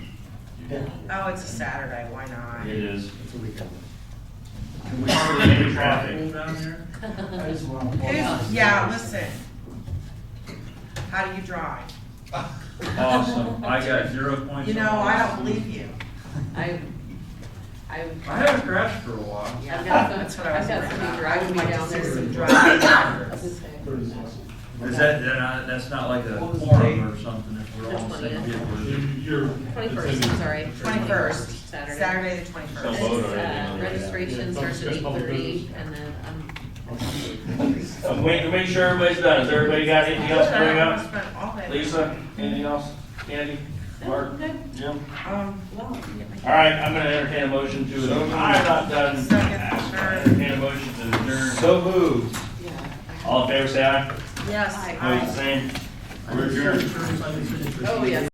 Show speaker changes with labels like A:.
A: Oh, it's a Saturday, why not?
B: It is.
C: It's a weekend.
B: Can we cover any traffic down here?
C: I just want to.
A: Who's- Yeah, listen. How do you drive?
B: Awesome, I got zero points.
A: You know,
B: on
A: I
B: this.
A: don't believe you.
D: I, I,
B: I haven't crashed for a while.
D: I've got
A: That's
D: some,
A: what I was
D: I've got
A: worried about.
D: some driving me down there.
A: Some
D: some dri-
A: driving
D: I was
A: drivers.
D: gonna say.
B: Is that, they're not- that's not like a
C: What was the
B: quorum or something, if we're all on the
D: The
B: same
D: 20th.
B: people.
D: Twenty-first, I'm sorry.
A: Twenty-first,
D: Saturday.
A: Saturday the
D: And
A: twenty-first.
E: Saturday.
D: it's, uh, Registration starts at eight thirty and then I'm
E: I'm waiting to make sure everybody's done. Has everybody got anything else to bring up?
A: Spent all day.
E: Lisa, anything else? Andy, Mark, Jim?
A: Um,
E: All right, I'm gonna entertain a motion to, I'm not done.
A: Second.
E: Entertain a motion to adjourn.
B: So moved.
D: yeah. I-
E: All in favor, say aye.
A: yes,
D: Hi.
E: Opposed,
A: I.
E: same. We're adjourned.
D: Oh, yes.